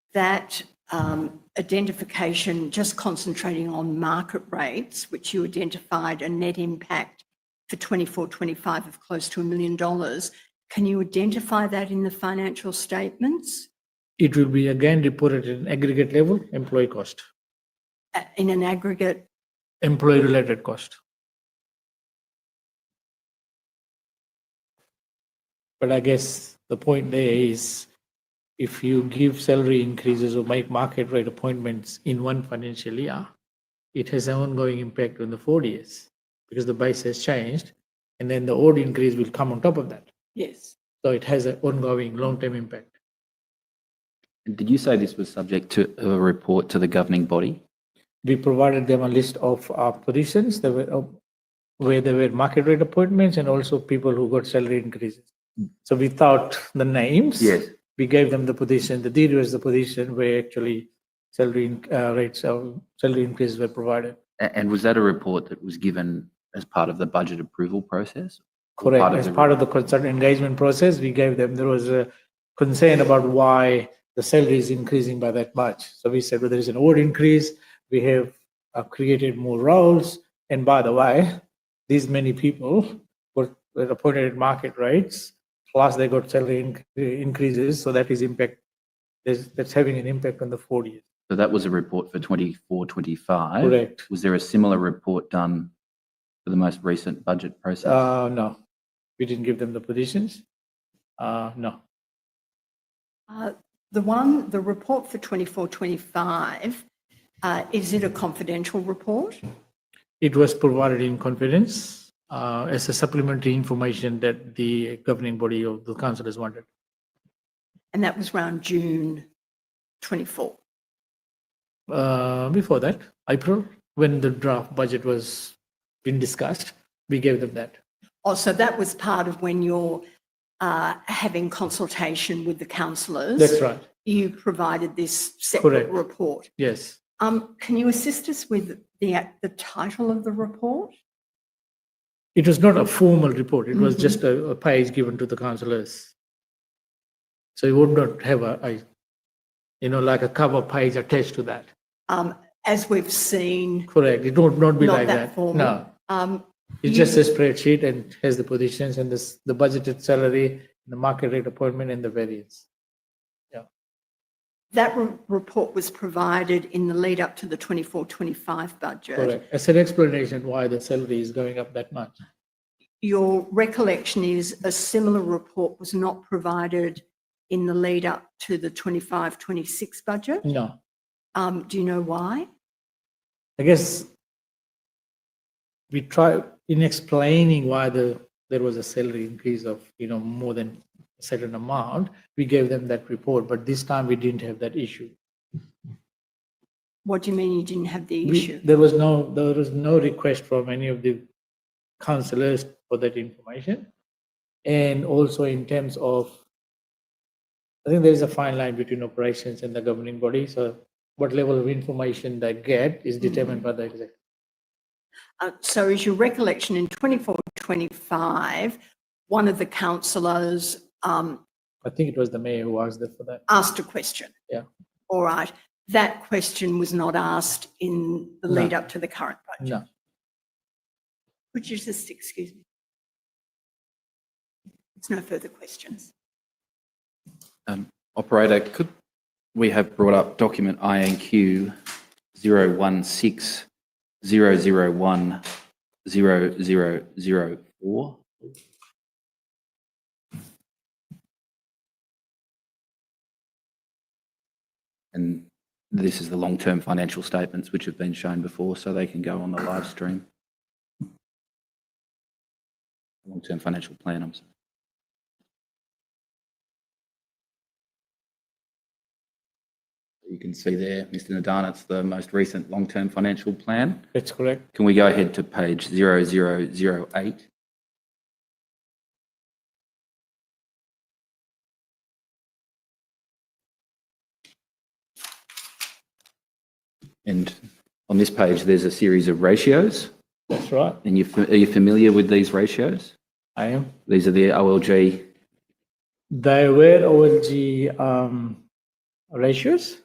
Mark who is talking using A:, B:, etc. A: that um, identification, just concentrating on market rates, which you identified a net impact for 24, 25 of close to a million dollars. Can you identify that in the financial statements
B: It will be again reported in aggregate level, employee cost,
A: uh, in an aggregate?
B: employee related cost. But I guess the point there is if you give salary increases or make market rate appointments in one financial year, it has an ongoing impact on the four years because the base has changed and then the old increase will come on top of that.
A: Yes.
B: So it has an ongoing long term impact.
C: And Did you say this was subject to a report to the governing body?
B: we provided them a list of uh, positions that were uh, where there were market rate appointments and also people who got salary increases. So without the names, we gave them the position. The deed was the position where actually salary in- uh, rates or salary increases were provided.
C: A- And was that a report that was given as part of the budget approval process? Or
B: Correct.
C: part of
B: As
C: the-
B: part of the consult engagement process, we gave them, there was a concern about why the salary is increasing by that much. So we said, well, there is an award increase, we have uh, created more roles. And by the way, these many people were were appointed at market rates, plus they got salary inc- increases, so that is impact, there's, that's having an impact on the four years.
C: So that was a report for 24, 25?
B: Correct.
C: Was there a similar report done for the most recent budget process?
B: Uh, no, we didn't give them the positions. Uh, no.
A: Uh, The one, the report for 24, 25, uh, is it a confidential report?
B: It was provided in confidence uh, as a supplementary information that the governing body of the council has wanted.
A: And that was around June 24.
B: Uh, Before that, April, when the draft budget was being discussed, we gave them that.
A: Oh, so that was part of when you're uh, having consultation with the councillors.
B: That's right,
A: You provided this separate
B: Correct.
A: report.
B: yes.
A: Um, Can you assist us with the, the title of the report?
B: It was not a formal report, it
A: Mm-hmm.
B: was just a a page given to the councillors. So you would not have a, a, you know, like a cover page attached to that.
A: Um, As we've seen,
B: Correct, it would not be
A: Not
B: like
A: that
B: that.
A: formal.
B: No.
A: um,
B: It's
A: You-
B: just a spreadsheet and has the positions and this, the budgeted salary, the market rate appointment and the variance.
A: that re- report was provided in the lead up to the 24, 25 budget.
B: Correct. As an explanation why the salary is going up that much.
A: Your recollection is a similar report was not provided in the lead up to the 25, 26 budget.
B: No,
A: Um, Do you know why?
B: I guess we try in explaining why the, there was a salary increase of, you know, more than a certain amount, we gave them that report, but this time we didn't have that issue.
A: What do you mean you didn't have the
B: We-
A: issue?
B: There was no, there was no request from any of the councillors for that information. And also in terms of, I think there is a fine line between operations and the governing body, so what level of information they get is determined by the executive.
A: Uh, So is your recollection in 24, 25, one of the councillors um,
B: I think it was the mayor who asked that for that.
A: asked a question?
B: Yeah.
A: All right. That question was not asked in the
B: No.
A: lead up to the current budget.
B: No,
A: Would you just excuse me? There's no further questions.
C: Um, Operator, could we have brought up document INQ 016-001-0004? And this is the long-term financial statements which have been shown before, so they can go on the live stream. Long-term financial plan, I'm sorry. You can see there, Mr. Nadan, it's the most recent long-term financial plan.
B: that's correct.
C: Can we go ahead to page 0008? And on this page, there's a series of ratios,
B: That's right,
C: and you, are you familiar with these ratios?
B: I am.
C: These are the OLG
B: There were OLG um, ratios